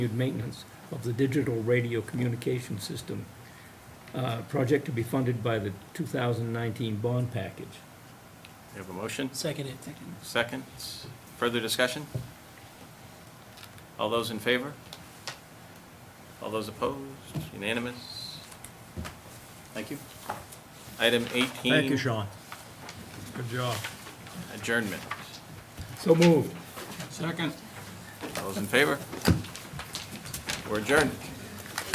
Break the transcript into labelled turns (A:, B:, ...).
A: continued maintenance of the digital radio communication system, uh, project to be funded by the 2019 bond package.
B: We have a motion,
C: Second it.
B: second, further discussion? All those in favor? All those opposed? Unanimous? Thank you. Item 18.
D: Thank you, Sean. Good job.
B: Adjournment.
A: So moved.
D: Second.
B: All those in favor? We're adjourned.